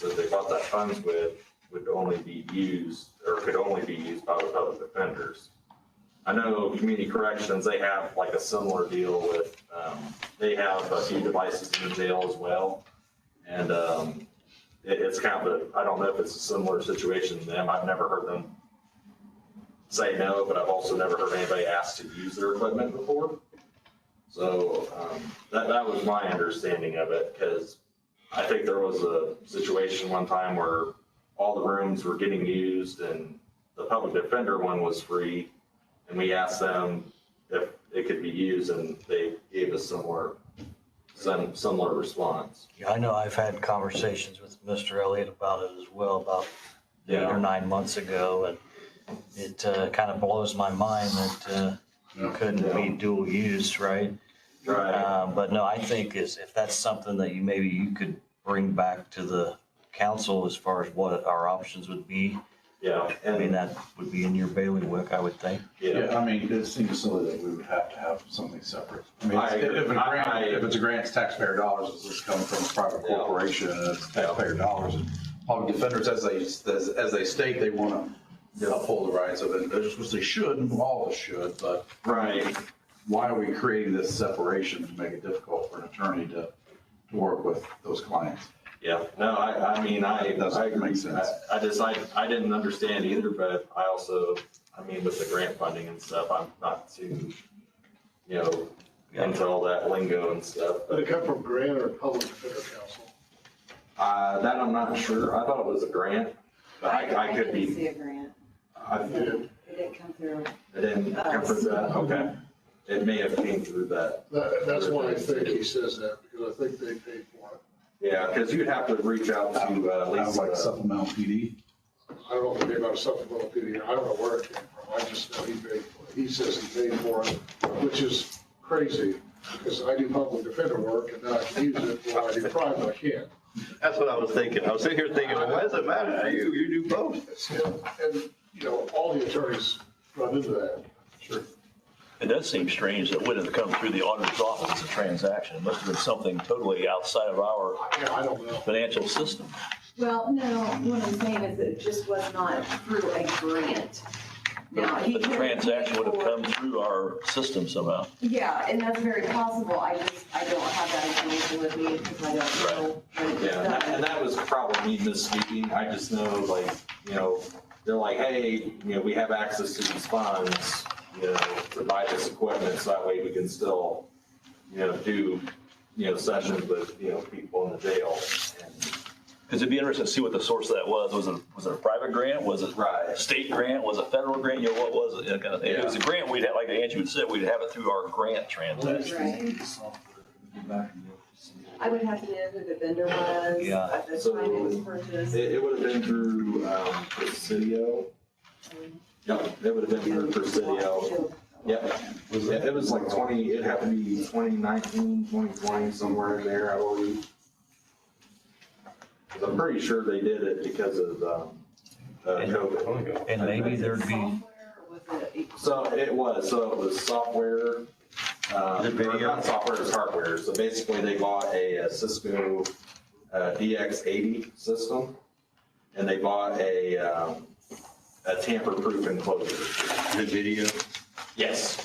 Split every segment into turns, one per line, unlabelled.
that they got that funds with would only be used, or could only be used by the public defenders. I know community corrections, they have like a similar deal with, um, they have a few devices in the jail as well. And, um, it, it's kind of a, I don't know if it's a similar situation to them. I've never heard them say no, but I've also never heard anybody ask to use their equipment before. So, um, that, that was my understanding of it, because I think there was a situation one time where all the rooms were getting used and the public defender one was free. And we asked them if it could be used and they gave us similar, some, similar response.
Yeah, I know I've had conversations with Mr. Elliott about it as well, about eight or nine months ago, and it uh, kind of blows my mind that uh, you couldn't be dual use, right?
Right,
Uh, But no, I think is, if that's something that you, maybe you could bring back to the council as far as what our options would be,
yeah,
I mean,
and,
that would be in your bailiwick, I would think.
yeah,
Yeah, I mean, it seems silly that we would have to have something separate. I mean,
I
if
agree.
if a
I-
grant, if it's a grant, it's taxpayer dollars, it's just coming from a private
Yeah.
corporation, and it's
Yeah.
taxpayer dollars. And Public defenders, as they, as, as they state, they want to uphold the rights of individuals, which they should, and all of us should, but
right,
why are we creating this separation to make it difficult for an attorney to, to work with those clients?
yeah. No, I, I mean, I,
It doesn't
I agree.
make sense.
I- I just, I, I didn't understand either, but I also, I mean, with the grant funding and stuff, I'm not too, you know, into all that lingo and stuff, but.
Did it come from Grant or Public Defender Council?
Uh, that I'm not sure. I thought it was a grant, but I, I could
didn't
be,
see a grant.
I it
Yeah.
It didn't come through.
didn't come from that, okay. It may have came through that.
That, that's why I think he says that, because I think they paid for it.
Yeah, because you'd have to reach out to, uh,
Kind of like
Lisa.
supplemental PD?
I don't know if they got a supplemental PD, I don't know where it came from, I just know he paid for it. He says he paid for it, which is crazy, because I do public defender work and now I can use it, while I do private, I can't.
That's what I was thinking. I was sitting here thinking, well, why does it matter to you? You do both.
It's- And, you know, all the attorneys run into that. Sure.
It does seem strange that it wouldn't have come through the auditor's office, the transaction. It must have been something totally outside of our
Yeah, I don't know.
financial system.
Well, no, what I'm saying is it just was not through a grant. Now, he
The
could-
transaction would have come through our system somehow.
Yeah, and that's very possible. I just, I don't have that information with me because I don't know. when it was
Yeah, and that- and
done.
that was probably me misspeaking. I just know like, you know, they're like, hey, you know, we have access to these funds, you know, to buy this equipment, so that way we can still, you know, do, you know, sessions with, you know, people in the jail. And
Because it'd be interesting to see what the source of that was. Was it, was it a private grant? Was it
Right.
a state grant? Was it federal grant? You know, what was it? That kind of thing. If it was a grant, we'd have, like Angie would say, we'd have it through our grant transaction.
Right. I would have to know who the vendor was
Yeah.
at the time it was purchased.
It, it would have been through, um, Presidio. Yep, it would have been through Presidio. Yep,
Was
it it was like twenty, it had to be 2019, 2020, somewhere in there, I believe. 'Cause I'm pretty sure they did it because of, um, uh, COVID.
And maybe there'd be,
Software or was it-
So it was, so it was software, uh,
The
or
video?
not software, it's hardware. So basically they bought a uh, Cisco, uh, DX eighty system. And they bought a, um, a tamper-proof enclosure.
The video.
Yes.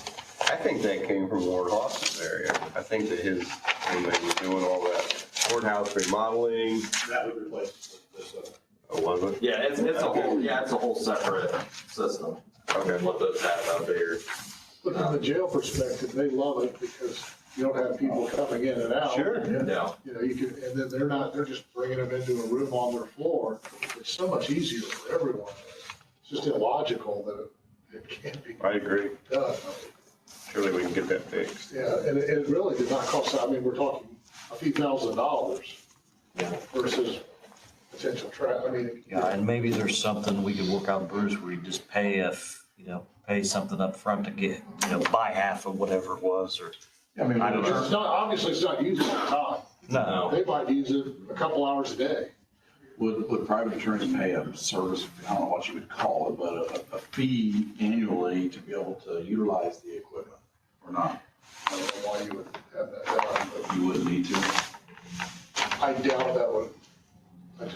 I think that came from Warren Hoffman's area. I think that his, when they were doing all that courthouse remodeling,
That would replace uh, this other.
oh, was it?
Yeah, it's, it's a whole, yeah, it's a whole separate system.
Okay.
What those have out there.
But from the jail perspective, they love it because you don't have people coming in and out.
Sure.
No,
You know, you can, and then they're not, they're just bringing them into a room on their floor. It's so much easier for everyone. It's just illogical that it can't be
I agree.
done.
Surely we can get that fixed.
Yeah, and it, it really did not cost, I mean, we're talking a few thousand dollars
Yeah.
versus potential trap. I mean,
yeah, and maybe there's something we could work out, Bruce, where you just pay if, you know, pay something up front to get, you know, buy half of whatever it was, or,
I mean,
I don't know.
it's not, obviously it's not used all the time.
no.
They might use it a couple hours a day.
Would, would private attorneys pay a service, I don't know what you would call it, but a, a fee annually to be able to utilize the equipment or not?
I don't know why you would have that done,
You wouldn't need to.
but I doubt that would